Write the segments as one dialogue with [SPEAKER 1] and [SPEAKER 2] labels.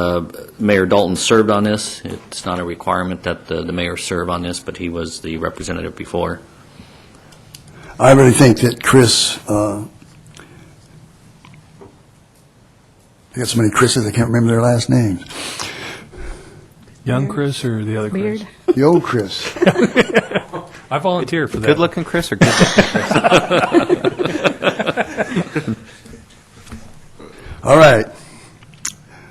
[SPEAKER 1] Uh, Mayor Dalton served on this. It's not a requirement that the the mayor serve on this, but he was the representative before.
[SPEAKER 2] I really think that Chris, uh, I got so many Chris's, I can't remember their last names.
[SPEAKER 3] Young Chris or the other Chris?
[SPEAKER 4] Beard.
[SPEAKER 2] The old Chris.
[SPEAKER 3] I volunteer for that.
[SPEAKER 5] Good looking Chris or good looking Chris?
[SPEAKER 2] All right.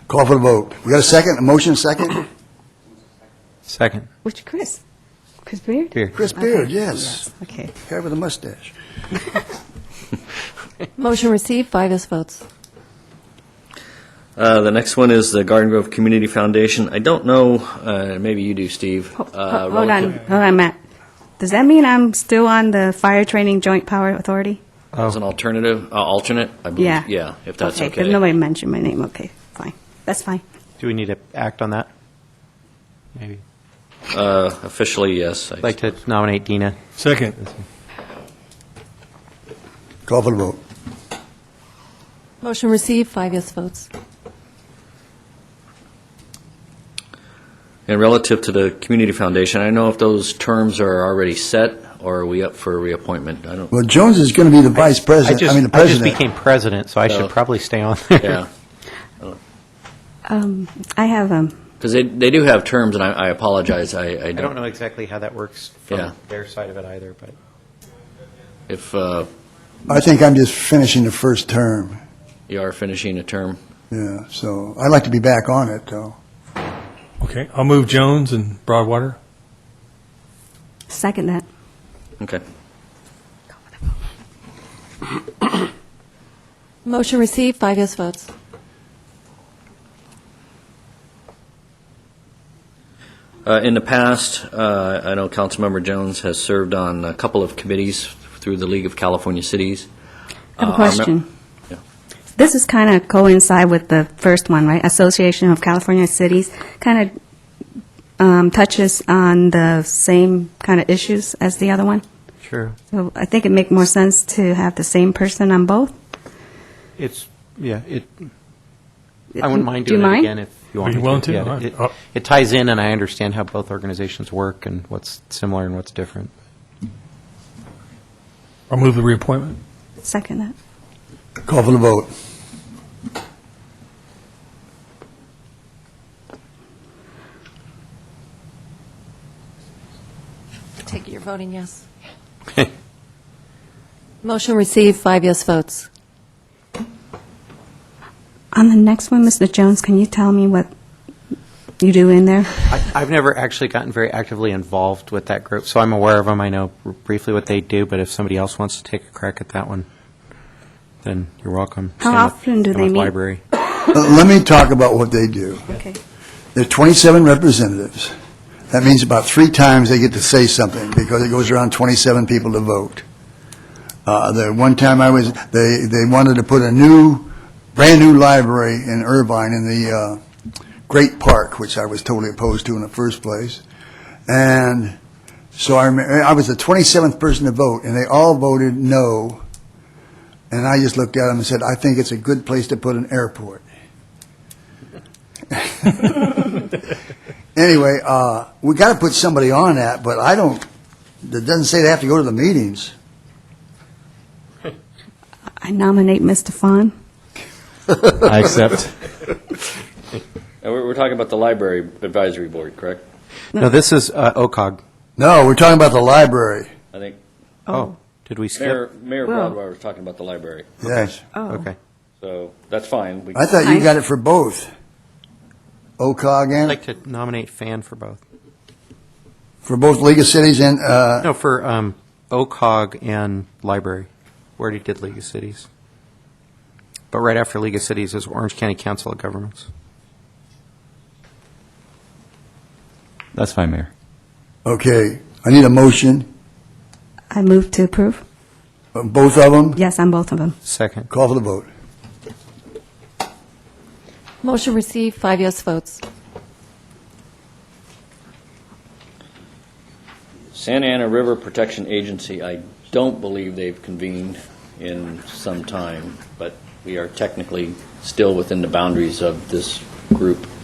[SPEAKER 2] Call for the vote. We got a second, a motion second?
[SPEAKER 5] Second.
[SPEAKER 4] Which Chris? Chris Beard?
[SPEAKER 5] Beer.
[SPEAKER 2] Chris Beard, yes.
[SPEAKER 4] Okay.
[SPEAKER 2] Guy with a mustache.
[SPEAKER 6] Motion received, five yes votes.
[SPEAKER 1] Uh, The next one is the Garden Grove Community Foundation. I don't know, uh, maybe you do, Steve.
[SPEAKER 4] Ho- ho-
[SPEAKER 1] uh,
[SPEAKER 4] Hold on,
[SPEAKER 1] relative-
[SPEAKER 4] hold on, Matt. Does that mean I'm still on the Fire Training Joint Power Authority?
[SPEAKER 1] As an alternative, uh, alternate, I believe.
[SPEAKER 4] Yeah.
[SPEAKER 1] Yeah, if that's
[SPEAKER 4] Okay, 'cause nobody mentioned my name. Okay, fine. That's fine.
[SPEAKER 5] Do we need to act on that? Maybe.
[SPEAKER 1] Uh, Officially, yes. I-
[SPEAKER 5] I'd like to nominate Dina.
[SPEAKER 3] Second.
[SPEAKER 2] Call for the vote.
[SPEAKER 6] Motion received, five yes votes.
[SPEAKER 1] And relative to the Community Foundation, I don't know if those terms are already set, or are we up for reappointment? I don't,
[SPEAKER 2] Well, Jones is going to be the vice
[SPEAKER 5] I
[SPEAKER 2] president, I
[SPEAKER 5] just,
[SPEAKER 2] mean, the
[SPEAKER 5] I just
[SPEAKER 2] president.
[SPEAKER 5] became president, so I
[SPEAKER 1] Oh.
[SPEAKER 5] should probably stay on there.
[SPEAKER 1] yeah.
[SPEAKER 4] Um, I have, um,
[SPEAKER 1] Because they, they do have terms, and I, I apologize, I, I
[SPEAKER 5] I don't
[SPEAKER 1] don't,
[SPEAKER 5] know exactly how that works
[SPEAKER 1] Yeah.
[SPEAKER 5] from their side of it either, but
[SPEAKER 1] if uh,
[SPEAKER 2] I think I'm just finishing the first term,
[SPEAKER 1] you are finishing a term.
[SPEAKER 2] yeah, so I'd like to be back on it, though.
[SPEAKER 3] Okay, I'll move Jones and Broadwater.
[SPEAKER 4] second that.
[SPEAKER 1] Okay.
[SPEAKER 6] Motion received, five yes votes.
[SPEAKER 1] Uh, In the past, uh, I know Councilmember Jones has served on a couple of committees through the League of California Cities.
[SPEAKER 4] I have
[SPEAKER 1] Uh,
[SPEAKER 4] a
[SPEAKER 1] I
[SPEAKER 4] question.
[SPEAKER 1] Yeah.
[SPEAKER 4] This is kind of coincide with the first one, right? Association of California Cities kind of um, touches on the same kind of issues as the other one.
[SPEAKER 5] sure.
[SPEAKER 4] So I think it make more sense to have the same person on both.
[SPEAKER 5] It's, yeah, it, I wouldn't mind
[SPEAKER 4] Do you
[SPEAKER 5] doing it
[SPEAKER 4] mind?
[SPEAKER 5] again if you want
[SPEAKER 3] you
[SPEAKER 5] me
[SPEAKER 3] willing to?
[SPEAKER 5] Yeah,
[SPEAKER 3] All right.
[SPEAKER 5] it-
[SPEAKER 3] I'll-
[SPEAKER 5] It ties in, and I understand how both organizations work and what's similar and what's different.
[SPEAKER 3] I'll move the reappointment.
[SPEAKER 4] Second that.
[SPEAKER 2] Call for the vote.
[SPEAKER 6] Take it you're voting yes. Motion received, five yes votes.
[SPEAKER 4] On the next one, Mr. Jones, can you tell me what you do in there?
[SPEAKER 5] I- I've never actually gotten very actively involved with that group, so I'm aware of them. I know briefly what they do, but if somebody else wants to take a crack at that one, then you're welcome.
[SPEAKER 4] How
[SPEAKER 5] Same with-
[SPEAKER 4] often do
[SPEAKER 5] same
[SPEAKER 4] they
[SPEAKER 5] with
[SPEAKER 4] meet?
[SPEAKER 5] Library.
[SPEAKER 2] Uh, Let me talk about what they do.
[SPEAKER 4] Okay.
[SPEAKER 2] There are 27 representatives. That means about three times they get to say something because it goes around 27 people to vote. Uh, The one time I was, they, they wanted to put a new, brand-new library in Irvine in the uh, Great Park, which I was totally opposed to in the first place. And so I, remem- I was the 27th person to vote, and they all voted no. And I just looked at them and said, I think it's a good place to put an airport. Anyway, uh, we got to put somebody on that, but I don't, it doesn't say they have to go to the meetings.
[SPEAKER 4] I nominate Mr. Fawn.
[SPEAKER 7] I accept.
[SPEAKER 1] And we're, we're talking about the Library Advisory Board, correct?
[SPEAKER 5] No, this is uh, OCOG.
[SPEAKER 2] No, we're talking about the library.
[SPEAKER 1] I think
[SPEAKER 5] Oh, did we
[SPEAKER 1] Mayor,
[SPEAKER 5] skip?
[SPEAKER 1] Mayor
[SPEAKER 4] Well-
[SPEAKER 1] Broadwater was talking about the library,
[SPEAKER 2] Yes.
[SPEAKER 4] Oh.
[SPEAKER 5] Okay.
[SPEAKER 1] so that's fine. We-
[SPEAKER 2] I thought you
[SPEAKER 4] I-
[SPEAKER 2] got it for both. OCOG
[SPEAKER 5] I'd
[SPEAKER 2] and,
[SPEAKER 5] like to nominate Fan for both.
[SPEAKER 2] for both League of Cities and, uh,
[SPEAKER 5] No, for um, OCOG and Library. We already did League of Cities. But right after League of Cities is Orange County Council of Governments.
[SPEAKER 7] That's fine, Mayor.
[SPEAKER 2] okay, I need a motion,
[SPEAKER 4] I move to approve.
[SPEAKER 2] uh, both of them.
[SPEAKER 4] Yes, on both of them.
[SPEAKER 5] Second.
[SPEAKER 2] Call for the vote.
[SPEAKER 6] Motion received, five yes votes.
[SPEAKER 1] Santa Ana River Protection Agency, I don't believe they've convened in some time, but we are technically still within the boundaries of this group.